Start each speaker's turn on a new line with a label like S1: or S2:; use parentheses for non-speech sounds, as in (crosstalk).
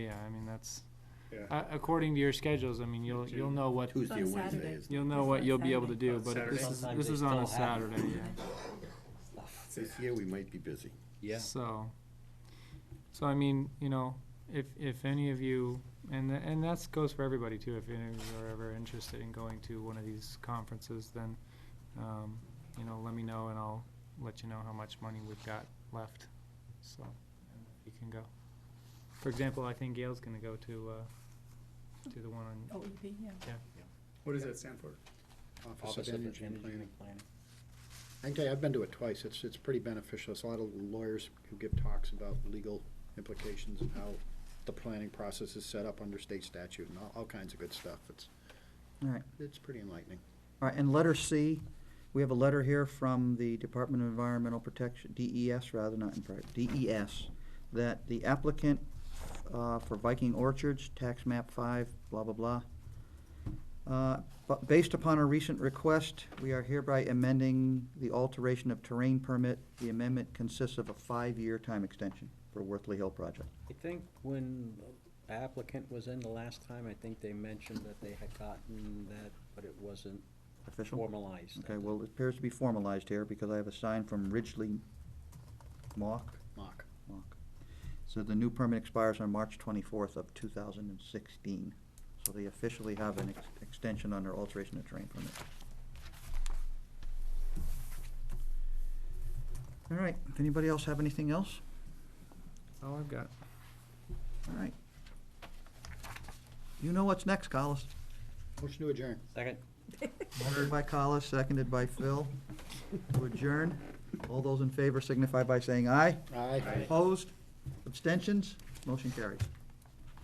S1: Yeah, I mean, that's,
S2: Yeah,
S1: uh, according to your schedules, I mean, you'll,
S2: Tuesday.
S1: you'll know what,
S3: Tuesday or
S4: It's on
S3: Wednesday
S4: Saturday.
S3: is.
S1: you'll know what you'll be able to do,
S2: On
S1: but if this is,
S2: Saturday.
S1: this is on a Saturday, yeah.
S3: This year, we might be busy.
S5: Yeah.
S1: So, so I mean, you know, if, if any of you, and, th- and that's goes for everybody too, if any of you are ever interested in going to one of these conferences, then, um, you know, let me know and I'll let you know how much money we've got left, so, and you can go. For example, I think Gail's gonna go to, uh, to the one on
S4: OEP, yeah.
S2: what does that stand for? Office of Energy and Planning.
S6: I can tell you, I've been to it twice. It's, it's pretty beneficial. It's a lot of lawyers who give talks about legal implications and how the planning process is set up under state statute and all, all kinds of good stuff. It's,
S7: All right,
S6: it's pretty enlightening.
S7: all right, and letter C, we have a letter here from the Department of Environmental Protection, DES rather, not in private, DES, that the applicant uh, for Viking Orchards, tax map five, blah, blah, blah. Uh, But based upon a recent request, we are hereby amending the alteration of terrain permit. The amendment consists of a five-year time extension for Worthley Hill project.
S5: I think when applicant was in the last time, I think they mentioned that they had gotten that, but it wasn't
S7: Official?
S5: formalized.
S7: Okay, well, it appears to be formalized here because I have a sign from Ridgely Mock.
S6: Mock.
S7: Mock. So the new permit expires on March twenty-fourth of two thousand and sixteen. So they officially have an ex- extension on their alteration of terrain permit. All right, if anybody else have anything else?
S1: All I've got.
S7: All right. You know what's next, Collis.
S6: Motion to adjourn.
S5: Second?
S4: (laughs)
S7: Moved by Collis, seconded by Phil. To adjourn. All those in favor signify by saying aye.
S6: Aye.
S7: Opposed? Abstentions? Motion carries.